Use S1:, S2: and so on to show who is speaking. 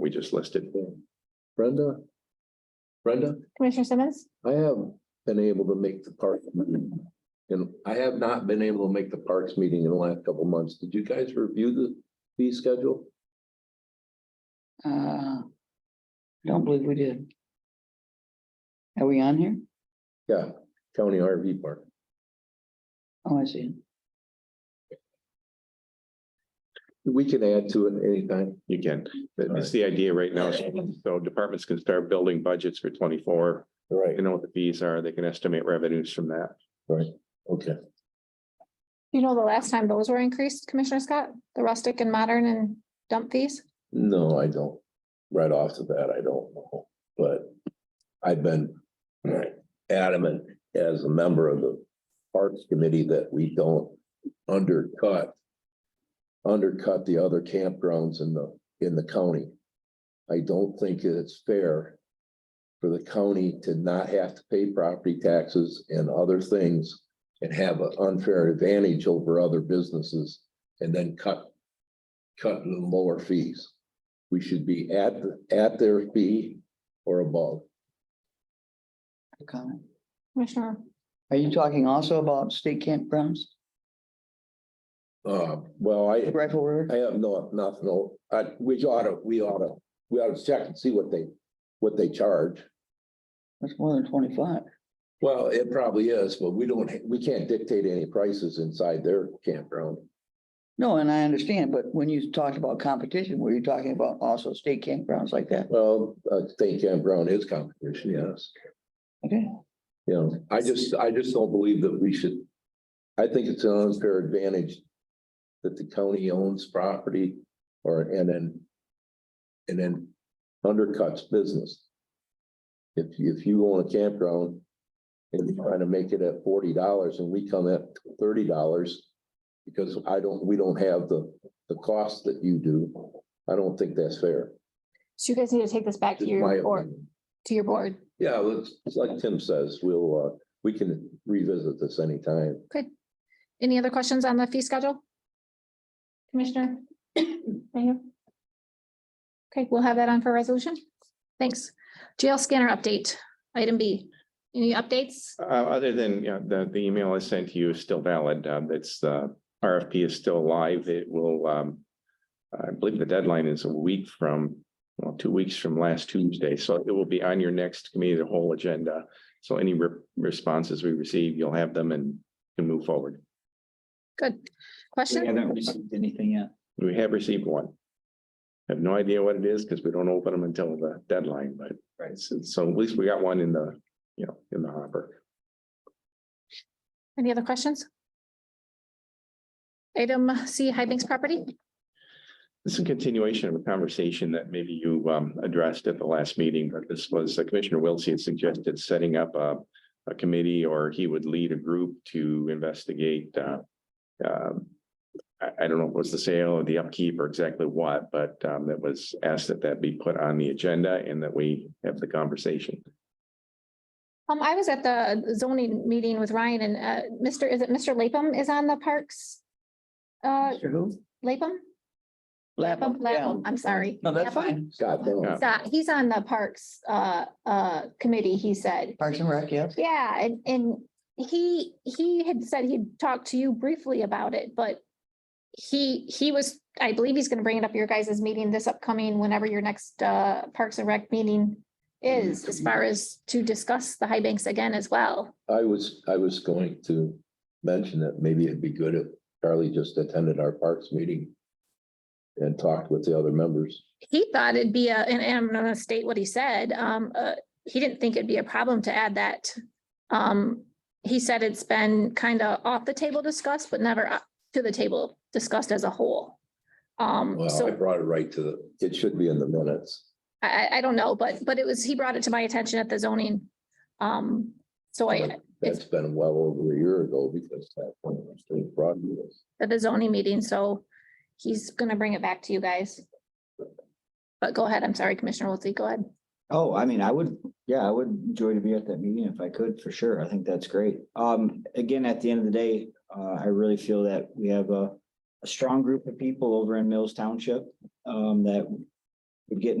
S1: we just listed.
S2: Brenda? Brenda,
S3: Commissioner Simmons?
S2: I haven't been able to make the park. meeting, And I have not been able to make the parks meeting in the last couple of months. Did you guys review the fee schedule?
S4: Uh, I don't believe we did. Are we on here?
S2: Yeah, county RV park.
S4: Oh, I see.
S2: We can add to it anytime.
S1: You can, That- that's the idea right now. So departments can start building budgets for twenty-four.
S2: Right,
S1: They know what the fees are. They can estimate revenues from that.
S2: okay.
S3: You know, the last time those were increased, Commissioner Scott, the rustic and modern and dump fees?
S2: No, I don't. Right off the bat, I don't know, but I've been adamant as a member of the Parks Committee that we don't undercut. Undercut the other campgrounds in the, in the county. I don't think it's fair. For the county to not have to pay property taxes and other things. And have an unfair advantage over other businesses and then cut cut the lower fees. We should be at, at their fee or above.
S4: Good comment.
S3: Commissioner,
S4: Are you talking also about state campgrounds,
S2: Uh, well, I,
S4: Rifle River?
S2: I have no, nothing, no, I, we oughta, we oughta, we oughta check and see what they, what they charge.
S4: That's more than twenty-five.
S2: Well, it probably is, but we don't, we can't dictate any prices inside their campground.
S4: No, and I understand, but when you talked about competition, were you talking about also state campgrounds like that?
S2: Well, uh, state campground is competition, yes.
S4: Okay,
S2: You know, I just, I just don't believe that we should. I think it's an unfair advantage. That the county owns property or, and then. And then undercuts business. If, if you own a campground. And you're trying to make it at forty dollars and we come at thirty dollars. Because I don't, we don't have the, the cost that you do. I don't think that's fair.
S3: so you guys need to take this back to
S2: Just my
S3: your board,
S2: opinion.
S3: to your board.
S2: Yeah, well, it's it's like Tim says, we'll, uh, we can revisit this anytime.
S3: Any other questions on the fee schedule? Commissioner? Mayhew? Okay, we'll have that on for resolution. Thanks. Jail scanner update, item B. Any updates?
S1: Uh, other than, you know, the, the email I sent to you is still valid. Um, it's, uh, RFP is still live. It will, um, I believe the deadline is a week from, well, two weeks from last Tuesday. So it will be on your next committee, of the whole agenda. So any re- responses we receive, you'll have them and can move forward.
S3: Good. Question?
S5: haven't received anything yet.
S1: We have received one. Have no idea what it is because we don't open them until the deadline, but right, so, so at least we got one in the, you know, in the hopper.
S3: Any other questions? Item C, High Banks property.
S1: This is a continuation of a conversation that maybe you um addressed at the last meeting, but this was uh, Commissioner Wiltsey had suggested setting up a. A committee or he would lead a group to investigate uh. um, I I don't know if it was the sale or the upkeep or exactly what, but um that was asked that that be put on the agenda and that we have the conversation.
S3: Um, I was at the zoning meeting with Ryan and, uh, Mr., is it Mr. Lapham is on the parks? Uh,
S4: Mr. who?
S3: Lapham? Oh,
S4: Lapham, yeah.
S3: Lapham, I'm sorry.
S4: No, that's
S3: Lapham?
S4: fine.
S2: God,
S1: Yeah.
S2: no,
S3: He's on- He's on the parks, uh, uh, committee, he said.
S4: Parks and Rec, yes.
S3: Yeah, and, and he, he had said he'd talked to you briefly about it, but he, he was, I believe he's gonna bring it up at your guys' meeting this upcoming, whenever your next, uh, Parks and Rec meeting is, as far as to discuss the high banks again as well.
S2: I was, I was going to mention that maybe it'd be good if Charlie just attended our parks meeting. And talked with the other members.
S3: He thought it'd be a, and and I'm gonna state what he said, um, uh, he didn't think it'd be a problem to add that. Um, he said it's been kind of off the table discussed, but never up to the table discussed as a whole. Um,
S2: Well, Uh, I
S3: so
S2: brought it right to the, it should be in the minutes.
S3: I, I, I don't know, but, but it was, he brought it to my attention at the zoning. Um, so I,
S2: That's been well over a year ago because that one was still brought to us.
S3: at the zoning meeting, so he's gonna bring it back to you guys. But go ahead, I'm sorry, Commissioner Wiltie, go ahead.
S5: Oh, I mean, I would, yeah, I would enjoy to be at that meeting if I could, for sure. I think that's great. Um, again, at the end of the day, uh, I really feel that we have a, a strong group of people over in Mills Township, um, that would get